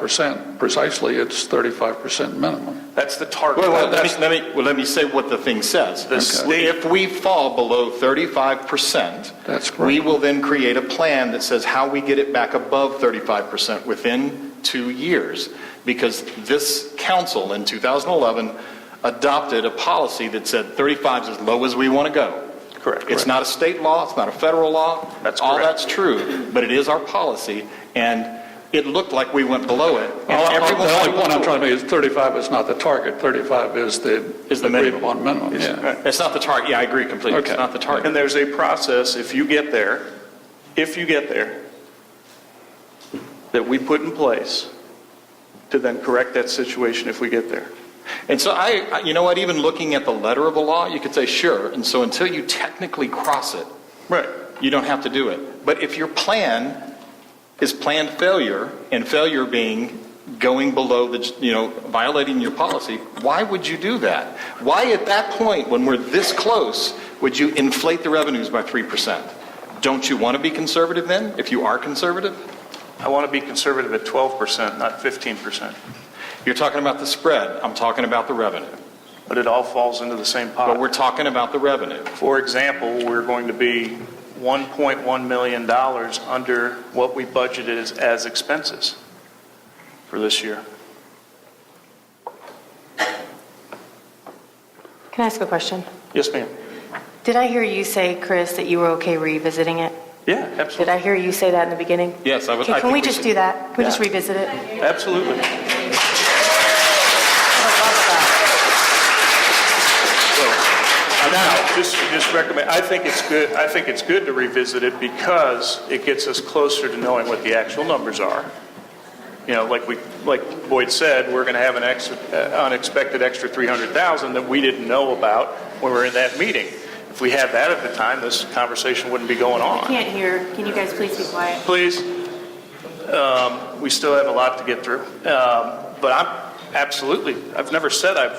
5% precisely, it's 35% minimum. That's the target. Well, well, Uh, let That's- me, let me, well, let me say what the thing says. The Okay. state- If we fall below 35%, That's correct. we will then create a plan that says how we get it back above 35% within two years. Because this council in 2011 adopted a policy that said 35 is as low as we want to go. Correct. It's not a state law, it's not a federal law. That's All correct. that's true, but it is our policy, and it looked like we went below it. and All- all- everyone- The only point I'm trying to make is 35 is not the target, 35 is the. Is the minimum. Agreed upon minimum, yeah. It's not the target, yeah, I agree completely. It's Okay. not the target. And there's a process, if you get there, if you get there, that we put in place to then correct that situation if we get there. And so I, I- you know what, even looking at the letter of the law, you could say, sure, and so until you technically cross it, Right. you don't have to do it. But if your plan is planned failure, and failure being going below the, you know, violating your policy, why would you do that? Why at that point, when we're this close, would you inflate the revenues by 3%? Don't you want to be conservative then, if you are conservative? I want to be conservative at 12%, not 15%, You're talking about the spread, I'm talking about the revenue. but it all falls into the same But we're pot. talking about the revenue. For example, we're going to be $1.1 million under what we budgeted as- as expenses for this year. Can I ask a question? Yes, ma'am? Did I hear you say, Chris, that you were okay revisiting it? Yeah, Did I hear you say that in the beginning? Yes, I was- I Okay, Can think we we just should- do that? Can we just Yeah. revisit it? I would love Absolutely. that. Now, just, just recommend, I think it's good, I think it's good to revisit it because it gets us closer to knowing what the actual numbers are. You know, like we, like Boyd said, we're going to have an extra, uh, unexpected extra 300,000 that we didn't know about when we were in that meeting. If we had that at the time, this conversation wouldn't be going I on. can't hear. Can you guys please be quiet? Please, um, we still have a lot to get through. Um, But I'm absolutely, I've never said I'm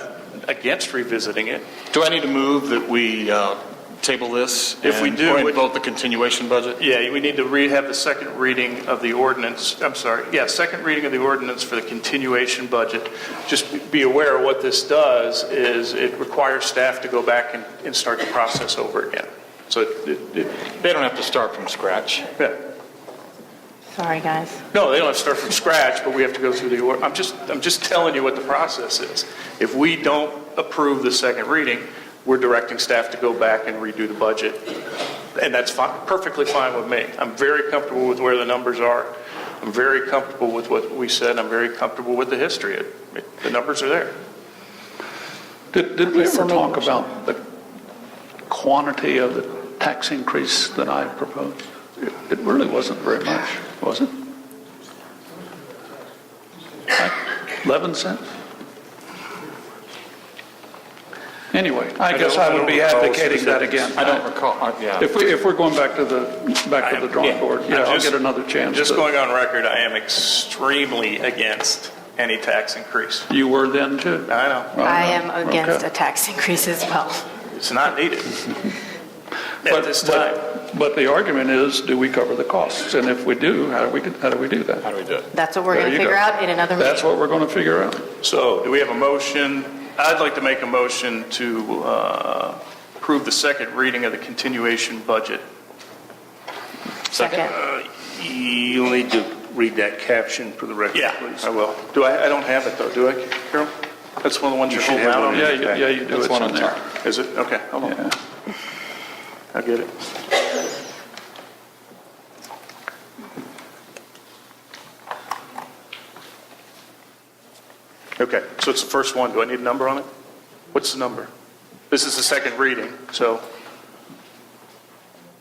against revisiting it. Do I need to move that we uh, table this? If we and- do, or would- vote the continuation budget? Yeah, we need to re, have the second reading of the ordinance, I'm sorry, yeah, second reading of the ordinance for the continuation budget. Just be aware, what this does is it requires staff to go back and, and start the process over again. So, it- it- it- They don't have to start from scratch. yeah. Sorry, guys. no, they don't have to start from scratch, but we have to go through the, or- I'm just, I'm just telling you what the process is. If we don't approve the second reading, we're directing staff to go back and redo the budget, and that's fi- perfectly fine with me. I'm very comfortable with where the numbers are. I'm very comfortable with what we said. I'm very comfortable with the history. It- it- The numbers are there. Did, did we So ever maybe- talk about the quantity of the tax increase that I proposed? It- It really wasn't very much, was it? Like 11 cents? Anyway, I guess I would be advocating that again. I don't recall, uh, yeah. If we, if we're going back to the, back to the drawing board, yeah, I'll just- get another chance. Just to- going on record, I am extremely against any tax increase. You were then too? I know, I am against Oh, Okay. a tax increase as well. it's not needed But- at this but- time. But the argument is, do we cover the costs? And if we do, how do we, how do we do that? How do we do it? That's what we're There going to you go. figure out in another meeting. That's what we're going to figure out. So do we have a motion? I'd like to make a motion to uh, approve the second reading of the continuation budget. Second. You'll need to read that caption for the record, Yeah, please. I will. Do I, I don't have it though, do I, Carol? That's one of the ones you're should holding have out one on? in Yeah, you- yeah, you do. That's It's one in on top. there. Is it? Okay, hold on. Yeah. I get it. Okay, so it's the first one. Do I need a number on it? What's the number? This is the second reading, so.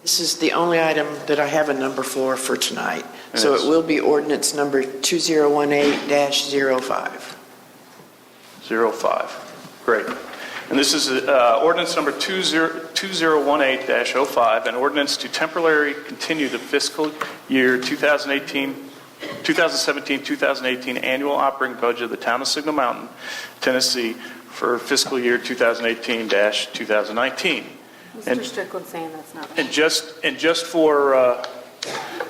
This is the only item that I have a number for for tonight. So it will be ordinance number 2018-05. 05. Great. And this is uh, ordinance number 20- 2018-05, an ordinance to temporarily continue the fiscal year 2018, 2017-2018 annual operating budget of the town of Signal Mountain, Tennessee for fiscal year 2018-2019. And- Mr. Strickland saying that's not. And just, and just for, uh,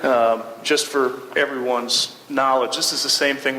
um, just for everyone's knowledge, this is the same thing